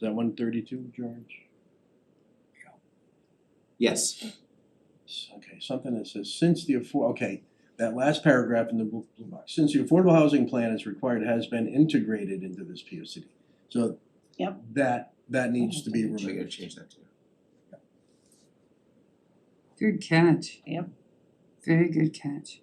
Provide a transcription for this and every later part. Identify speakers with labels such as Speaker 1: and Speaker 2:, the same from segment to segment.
Speaker 1: that one thirty-two, George?
Speaker 2: Yes,
Speaker 1: S- Okay, something that says, since the afford, okay, that last paragraph in the blue blue box, since the affordable housing plan is required, has been integrated into this P O C D. So.
Speaker 3: Yep.
Speaker 1: That, that needs to be
Speaker 2: we gotta
Speaker 1: removed.
Speaker 2: change that too.
Speaker 4: Good catch.
Speaker 3: Yep.
Speaker 4: Very good catch.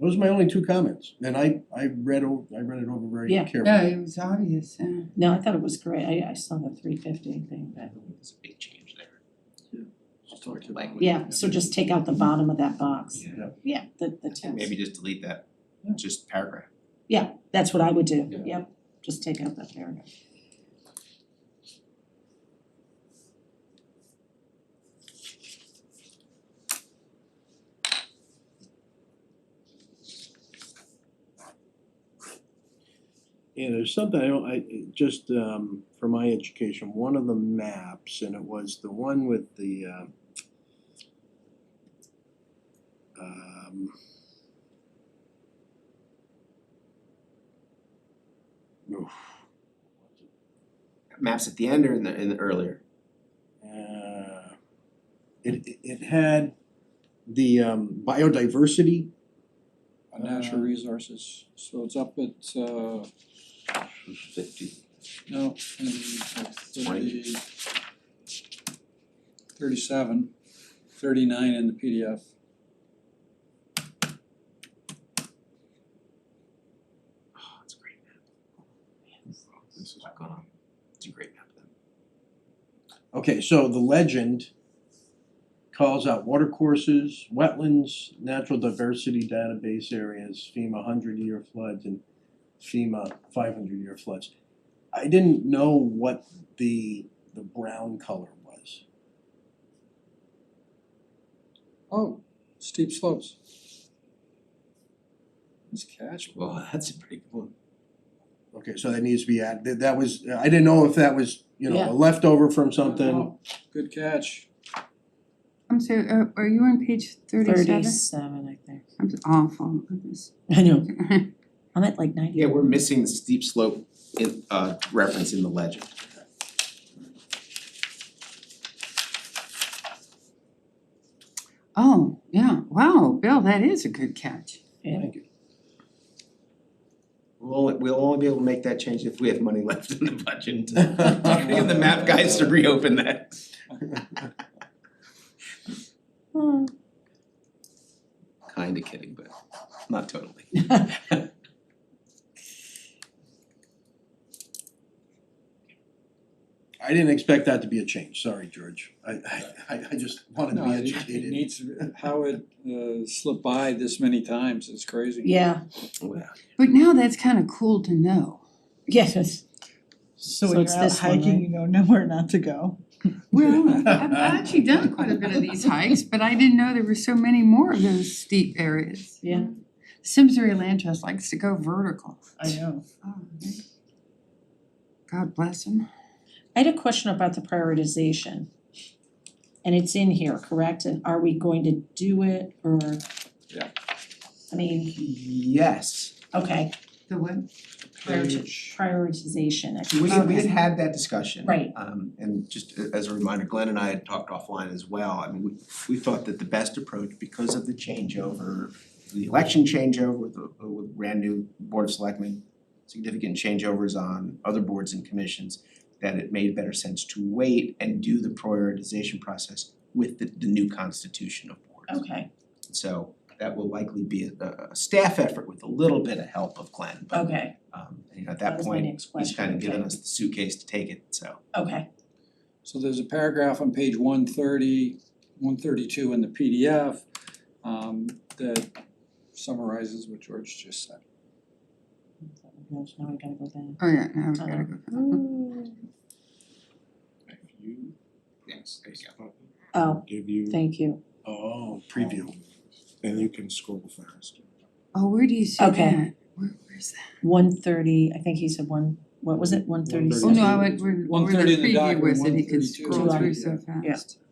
Speaker 1: Those are my only two comments, and I, I read, o- I read it over very
Speaker 3: Yeah.
Speaker 1: carefully.
Speaker 4: Yeah, it was obvious, yeah.
Speaker 3: No, I thought it was great, I I saw the three fifty thing, but,
Speaker 2: It's a big change there.
Speaker 1: Just talk to-
Speaker 2: Language.
Speaker 3: yeah, so just take out the bottom of that box,
Speaker 2: Yeah,
Speaker 3: yeah, the the text.
Speaker 2: maybe just delete that,
Speaker 1: Yeah.
Speaker 2: just paragraph.
Speaker 3: That's what I would do,
Speaker 2: Yeah.
Speaker 3: yep, just take out that paragraph.
Speaker 1: And there's something I don't, I, it just, um, for my education, one of the maps, and it was the one with the, um, um, oof,
Speaker 2: Maps at the end or in the in the earlier?
Speaker 1: uh, it, it, it had the, um, biodiversity,
Speaker 5: on natural
Speaker 1: Uh,
Speaker 5: resources, so it's up at uh
Speaker 2: Fifty.
Speaker 5: no, in like
Speaker 2: Twenty.
Speaker 5: thirty thirty-seven, thirty-nine in the PDF.
Speaker 2: Oh, it's a great map. This is what's going on. It's a great map then.
Speaker 1: Okay, so the legend calls out water courses, wetlands, natural diversity database areas, FEMA hundred year floods and FEMA five hundred year floods. I didn't know what the the brown color was.
Speaker 5: Oh, steep slopes. Nice catch,
Speaker 2: Well, that's a pretty good one.
Speaker 1: Okay, so that needs to be added, that that was, I didn't know if that was, you know,
Speaker 3: Yeah.
Speaker 1: a leftover from something.
Speaker 5: Wow, Good catch.
Speaker 4: I'm sorry, are, are you on page thirty-seven?
Speaker 3: Thirty-seven, I think,
Speaker 4: I'm awful at this.
Speaker 3: I know, I'm at like ninety.
Speaker 2: Yeah, we're missing the steep slope in uh reference in the legend.
Speaker 4: Oh, yeah, wow, Bill, that is a good catch.
Speaker 3: Yeah.
Speaker 1: Thank you.
Speaker 2: We'll only, we'll only be able to make that change if we have money left in the budget. to Get the map guys to reopen that.
Speaker 3: Oh.
Speaker 2: Kinda kidding, but not totally.
Speaker 1: I didn't expect that to be a change, sorry, George. I I I- I just wanted to
Speaker 5: No,
Speaker 1: be
Speaker 5: it-
Speaker 1: educated.
Speaker 5: It needs, how it uh slipped by this many times is crazy.
Speaker 3: Yeah,
Speaker 2: Wow.
Speaker 4: But now that's kind of cool to know.
Speaker 3: yes, it's-
Speaker 6: So
Speaker 3: So
Speaker 6: when
Speaker 3: it's
Speaker 6: you're out
Speaker 3: this one, right?
Speaker 6: hiking, you know nowhere not to go.
Speaker 4: Well, I've actually done quite a bit of these hikes, but I didn't know there were so many more of those steep areas.
Speaker 3: Yeah.
Speaker 4: Simsbury Land Trust likes to go vertical.
Speaker 6: I know.
Speaker 4: Oh, man. God bless them.
Speaker 3: I had a question about the prioritization. And it's in here, correct, and are we going to do it, or?
Speaker 5: Yeah.
Speaker 3: I mean,
Speaker 2: Yes,
Speaker 3: okay,
Speaker 4: The what?
Speaker 3: prioriti- prioritization, I
Speaker 2: we had, we had
Speaker 3: Okay.
Speaker 2: had that discussion.
Speaker 3: Right.
Speaker 2: Um, and just a- as a reminder, Glenn and I had talked offline as well, I mean, we, we thought that the best approach, because of the changeover, the election changeover with, the- with brand new board of selectmen, significant changeovers on other boards and commissions, that it made better sense to wait and do the prioritization process with the, the new constitution of boards.
Speaker 3: okay,
Speaker 2: So that will likely be a, a staff effort with a little bit of help of Glenn, but
Speaker 3: okay,
Speaker 2: um, you know, at that
Speaker 3: that was my
Speaker 2: point,
Speaker 3: next
Speaker 2: he's
Speaker 3: question,
Speaker 2: kind of given
Speaker 3: okay,
Speaker 2: us the suitcase to take it, so.
Speaker 3: okay,
Speaker 5: So there's a paragraph on page 130, 132 in the PDF um that summarizes what George just said.
Speaker 3: now I gotta go down.
Speaker 4: Oh, yeah, now we gotta go. vertical.
Speaker 2: Mm. Yes, there you go.
Speaker 3: Oh,
Speaker 7: give you,
Speaker 3: thank you,
Speaker 1: Oh, preview.
Speaker 7: and you can scroll faster.
Speaker 4: Oh, where do you see that?
Speaker 3: Okay.
Speaker 4: Where, where's that?
Speaker 3: one thirty, I think he said one, what was it, one thirty
Speaker 4: Oh,
Speaker 3: seven?
Speaker 4: no, I went, where, where
Speaker 5: 130
Speaker 4: the
Speaker 5: in the
Speaker 4: preview
Speaker 5: document,
Speaker 4: was that he could
Speaker 5: 132.
Speaker 4: scroll through so fast.
Speaker 3: Yeah.